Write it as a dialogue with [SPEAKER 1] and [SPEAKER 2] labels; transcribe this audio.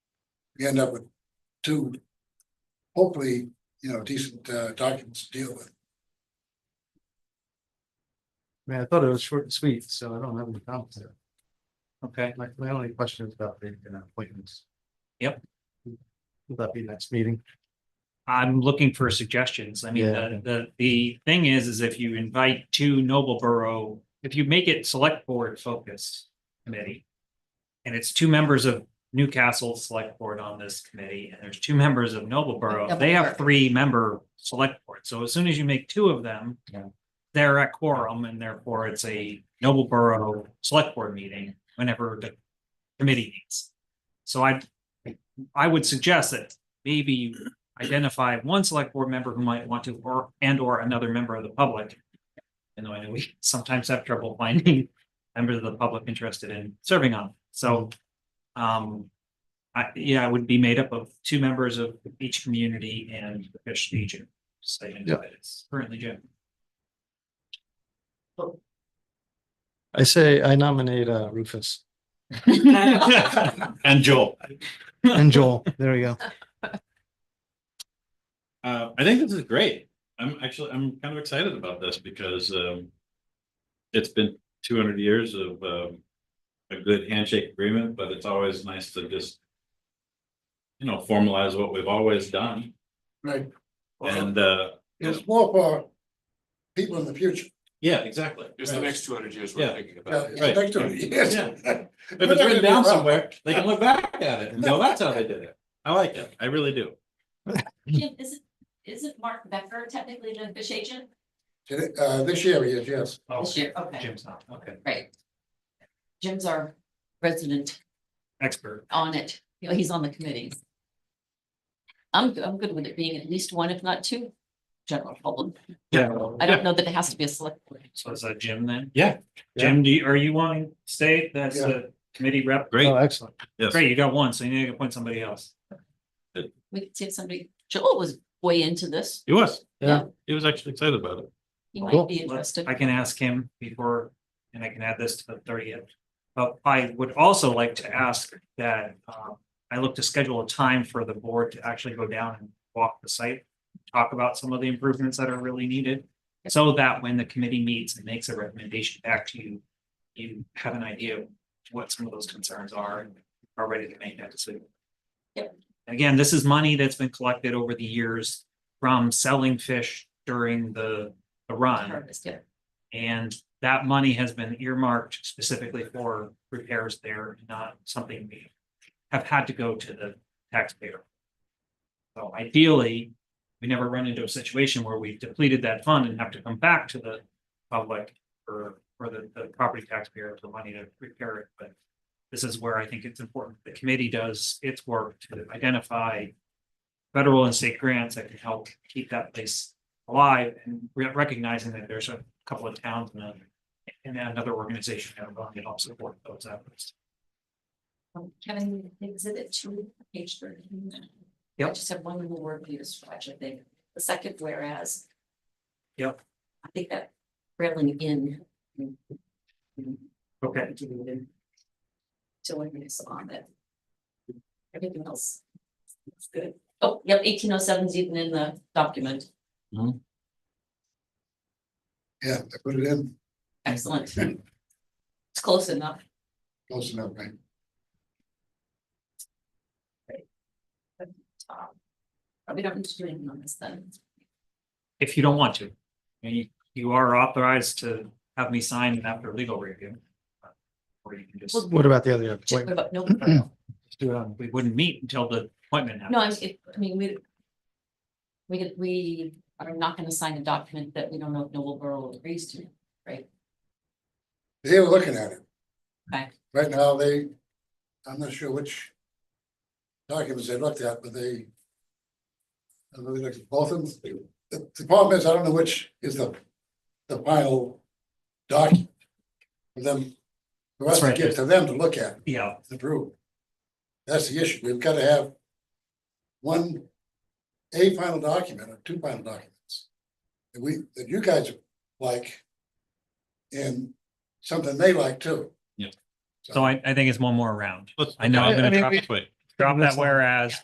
[SPEAKER 1] we end up with two, hopefully, you know, decent uh, documents to deal with.
[SPEAKER 2] I mean, I thought it was short and sweet, so I don't have any comments there. Okay, my, my only question is about the uh, appointments.
[SPEAKER 3] Yep.
[SPEAKER 2] Will that be next meeting?
[SPEAKER 3] I'm looking for suggestions. I mean,
[SPEAKER 2] Yeah.
[SPEAKER 3] the, the, the thing is, is if you invite two Noble Borough, if you make it select board focused committee. And it's two members of Newcastle Select Board on this committee, and there's two members of Noble Borough.
[SPEAKER 4] Noble
[SPEAKER 3] They have
[SPEAKER 4] Borough.
[SPEAKER 3] three member select board. So as soon as you make two of them.
[SPEAKER 2] Yeah.
[SPEAKER 3] They're at quorum and therefore it's a Noble Borough Select Board meeting whenever the committee meets. So I, I would suggest that maybe you identify one select board member who might want to, or, and or another member of the public. And I know we sometimes have trouble finding members of the public interested in serving on, so. Um, I, yeah, it would be made up of two members of each community and the fish agent. Say,
[SPEAKER 2] Yeah.
[SPEAKER 3] it's currently Jim.
[SPEAKER 2] I say I nominate uh, Rufus
[SPEAKER 5] And Joel,
[SPEAKER 2] and Joel. There we go.
[SPEAKER 5] uh, I think this is great. I'm actually, I'm kind of excited about this because, um. It's been two hundred years of, um, a good handshake agreement, but it's always nice to just. You know, formalize what we've always done
[SPEAKER 1] Right.
[SPEAKER 5] and, uh,
[SPEAKER 1] It's more for people in the future.
[SPEAKER 5] yeah, exactly.
[SPEAKER 6] It's the next two hundred years
[SPEAKER 5] Yeah.
[SPEAKER 6] we're thinking
[SPEAKER 1] Yeah,
[SPEAKER 6] about.
[SPEAKER 1] it's
[SPEAKER 5] Right.
[SPEAKER 1] next to it, yes.
[SPEAKER 5] If it's written down somewhere, they can look back at it and go, that's how they did it. I like it. I really do.
[SPEAKER 4] Jim, isn't, isn't Mark Becker technically the fish agent
[SPEAKER 1] Uh, this year, yes, yes.
[SPEAKER 3] Oh,
[SPEAKER 4] this year? Okay,
[SPEAKER 3] Jim's not, okay,
[SPEAKER 4] great. Jim's our resident
[SPEAKER 3] expert.
[SPEAKER 4] on it, you know, he's on the committees. I'm, I'm good with it being at least one, if not two, general public.
[SPEAKER 3] Yeah.
[SPEAKER 4] I don't know that it has to be a select. board.
[SPEAKER 3] So is that Jim then?
[SPEAKER 5] Yeah.
[SPEAKER 3] Jim, do you, are you wanting to stay? That's
[SPEAKER 1] Yeah.
[SPEAKER 3] the committee rep.
[SPEAKER 2] Oh,
[SPEAKER 5] Great.
[SPEAKER 2] excellent.
[SPEAKER 5] Yes.
[SPEAKER 3] Great, you got one, so you need to appoint somebody else.
[SPEAKER 4] We could see if somebody, Joel was way into this.
[SPEAKER 5] He was.
[SPEAKER 2] Yeah.
[SPEAKER 5] He was actually excited about it.
[SPEAKER 4] He
[SPEAKER 2] Cool.
[SPEAKER 4] might be
[SPEAKER 3] Let's-
[SPEAKER 4] interested.
[SPEAKER 3] I can ask him before, and I can add this to the thirtieth. But I would also like to ask that, um, I look to schedule a time for the board to actually go down and walk the site. Talk about some of the improvements that are really needed, so that when the committee meets and makes a recommendation back to you. You have an idea of what some of those concerns are and are ready to make that decision.
[SPEAKER 4] Yep.
[SPEAKER 3] Again, this is money that's been collected over the years from selling fish during the, the run.
[SPEAKER 4] Harvest, yeah.
[SPEAKER 3] And that money has been earmarked specifically for repairs there, not something we have had to go to the taxpayer. So ideally, we never run into a situation where we've depleted that fund and have to come back to the public or, or the, the property taxpayer for money to repair it, but this is where I think it's important. The committee does its work to identify federal and state grants that can help keep that place alive and re- recognizing that there's a couple of towns and a- and another organization that are going to help support those efforts.
[SPEAKER 4] Um, Kevin, exhibit two, page thirty. I
[SPEAKER 3] Yep.
[SPEAKER 4] just have one more word for you to scratch, I think. The second whereas.
[SPEAKER 3] Yep.
[SPEAKER 4] I think that railing in.
[SPEAKER 3] Okay.
[SPEAKER 4] To when you saw that. Everything else. is good. Oh, yep, eighteen oh seven is even in the document.
[SPEAKER 1] Yeah, I put it in,
[SPEAKER 4] Excellent. It's close enough.
[SPEAKER 1] close enough, right?
[SPEAKER 4] Um, Probably don't need to do anything on this then.
[SPEAKER 3] If you don't want to, and you, you are authorized to have me sign after legal review. Or you can just,
[SPEAKER 4] Well-
[SPEAKER 2] What about the other
[SPEAKER 4] Just
[SPEAKER 2] appointment?
[SPEAKER 4] what about no?
[SPEAKER 3] just do it on, we wouldn't meet until the appointment.
[SPEAKER 4] No, I'm,
[SPEAKER 3] happens.
[SPEAKER 4] it- I mean, we. We, did- we are not gonna sign a document that we don't know if Noble Borough agrees to,
[SPEAKER 1] They were looking at it.
[SPEAKER 4] Okay.
[SPEAKER 1] Right now, they, I'm not sure which documents they looked at, but they. I don't know, they looked at both of them. The the problem is, I don't know which is the, the final document. For them, for us
[SPEAKER 3] That's
[SPEAKER 1] to
[SPEAKER 3] right.
[SPEAKER 1] give to them to look at,
[SPEAKER 3] Yeah,
[SPEAKER 1] to approve. That's the issue. We've got to have one, a final document or two final documents. That we, that you guys like. And something they like too.
[SPEAKER 3] so I, I think it's one more round.
[SPEAKER 5] Let's-
[SPEAKER 3] I know, I'm
[SPEAKER 2] I- I
[SPEAKER 3] gonna
[SPEAKER 2] mean,
[SPEAKER 3] try,
[SPEAKER 2] we-
[SPEAKER 5] Wait.
[SPEAKER 3] Drop that whereas